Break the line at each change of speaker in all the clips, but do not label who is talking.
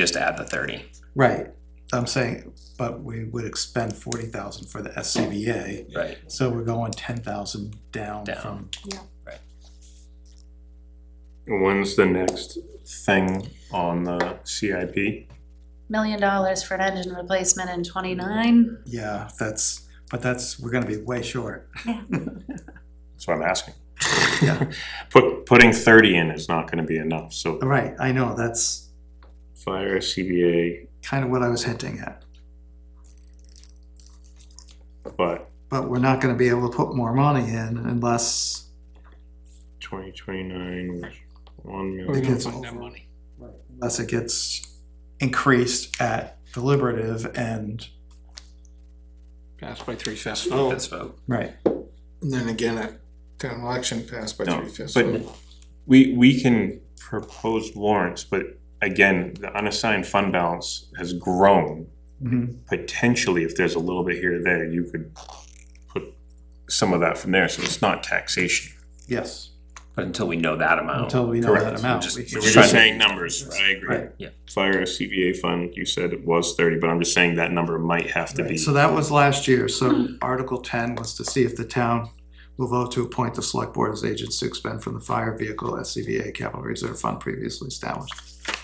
just add the thirty.
Right, I'm saying, but we would expend forty thousand for the SCBA,
Right.
so we're going ten thousand down
Down.
from
When's the next thing on the CIP?
million dollars for an engine replacement in twenty-nine.
Yeah, that's, but that's, we're gonna be way short.
That's what I'm asking.
Yeah.
Put, putting thirty in is not gonna be enough, so
All Right, I know, that's
fire, CBA,
kind of what I was hinting at,
but
but we're not gonna be able to put more money in unless
twenty twenty-nine was one
it
million.
gets over. Unless it gets increased at deliberative and,
passed by three fifths
Let's
Oh.
vote,
vote.
right,
and then again at town election passed by
No,
three fifths
but
vote.
we, we can propose warrants, but again, the unassigned fund balance has grown.
Mhm.
Potentially, if there's a little bit here or there, you could put some of that from there, so it's not taxation.
yes,
But until we know that amount.
until we know that
correct.
amount.
Just-
we
So
can-
We're just saying numbers, I agree.
Right.
Yeah.
Fire CVA fund, you said it was thirty, but I'm just saying that number might have to be.
So that was last year, so Article ten was to see if the town will vote to appoint the select board as agents to expend from the fire vehicle SCBA capital reserve fund previously established.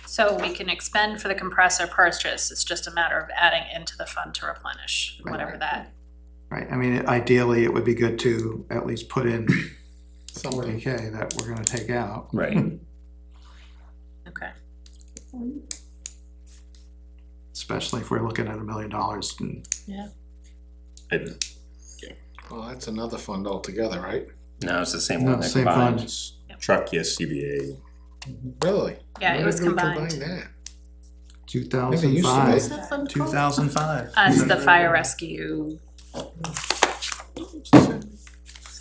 So we can expend for the compressor purchase, it's just a matter of adding into the fund to replenish,
Right,
whatever
right,
that.
Right, I mean, ideally, it would be good to at least put in forty
Somebody,
K that we're gonna take out.
Right.
Okay,
especially if we're looking at a million dollars and
It-
well, that's another fund altogether, right?
No, it's the same
No,
one that
same
combined.
fund.
it's Truck, yes, CBA.
Really?
yeah,
Why
it was
did we combine
combined.
that?
Two
Maybe it
thousand
used to
five.
be.
that fund
Two thousand five.
Uh, it's the fire rescue.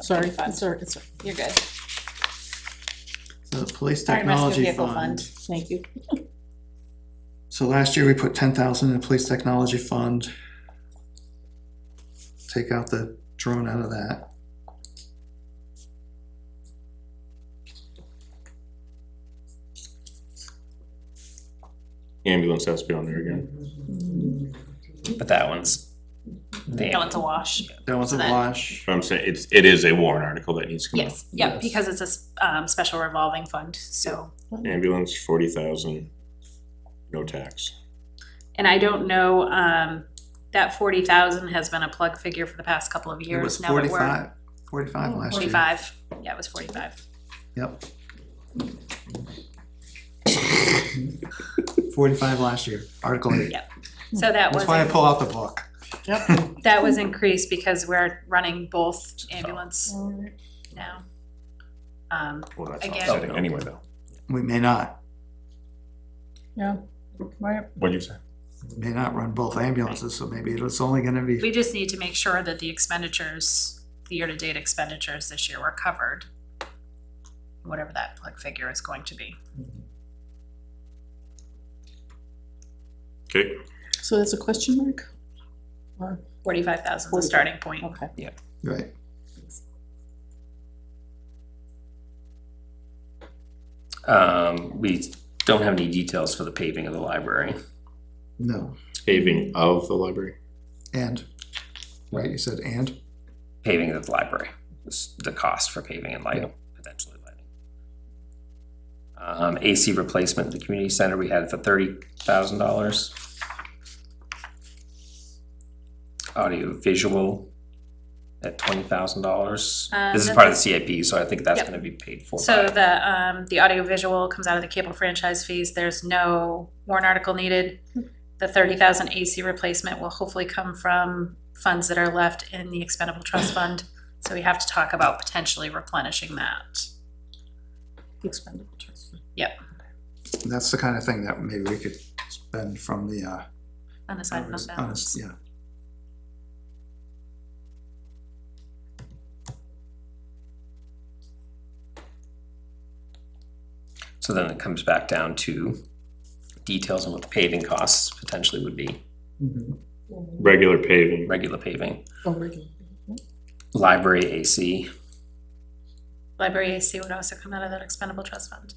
Sorry, sorry, it's- you're good.
The police
Sorry, Rescue
technology
Vehicle
fund.
Thank you.
So last year we put ten thousand in the police technology fund. Take out the drone out of that.
Ambulance has to be on there again.
But that one's. the-
That one's a wash.
That was a
So that-
wash.
But I'm saying, it's, it is a warrant article that needs to come out.
Yes, yeah, because it's a, s- um, special revolving fund, so.
Ambulance, forty thousand, no tax.
And I don't know, um, that forty thousand has been a plug figure for the past couple
It
of
was
years now that we're.
forty-five, forty-five last year.
Forty-five, yeah, it was forty-five.
Yep. Forty-five last year, Article eight.
Yeah. So that was.
That's why I
a-
pull out the book.
That was increased because we're running both ambulance now. Um,
Well, that's
Again.
offsetting Oh, anyway, though.
We may not,
Yeah, right.
What'd you say?
we may not run both ambulances, so maybe it's only gonna be
we just need to make sure that the expenditures, the year-to-date expenditures this year were covered. Whatever that plug figure is going to be.
Okay,
So that's a question mark? Or-
Forty-five thousand is the starting point.
Okay.
Right.
Um, we don't have any details for the paving of the library.
No.
paving of the library.
And. Right, you said and?
Paving of the library, this- the cost for paving and lighting, potentially lighting. Um, AC replacement at the community center, we had for thirty thousand dollars. Audio visual at twenty thousand dollars.
Uh,
This is
that's-
part of the CIP, so I think that's
Yep.
gonna be paid for.
So
by-
the, um, the audiovisual comes out of the cable franchise fees. There's no warrant article needed. The thirty thousand AC replacement will hopefully come from funds that are left in the expendable trust fund. So we have to talk about potentially replenishing that.
Expendable trust.
That's the kind of thing that maybe we could spend from the, uh.
Unassigned fund
on a-
balance.
Yeah.
So then it comes back down to details on what the paving costs potentially would be,
Mm-hmm.
Regular paving,
regular paving,
Oh, regular.
library AC,
Library AC would also come out of that expendable trust fund.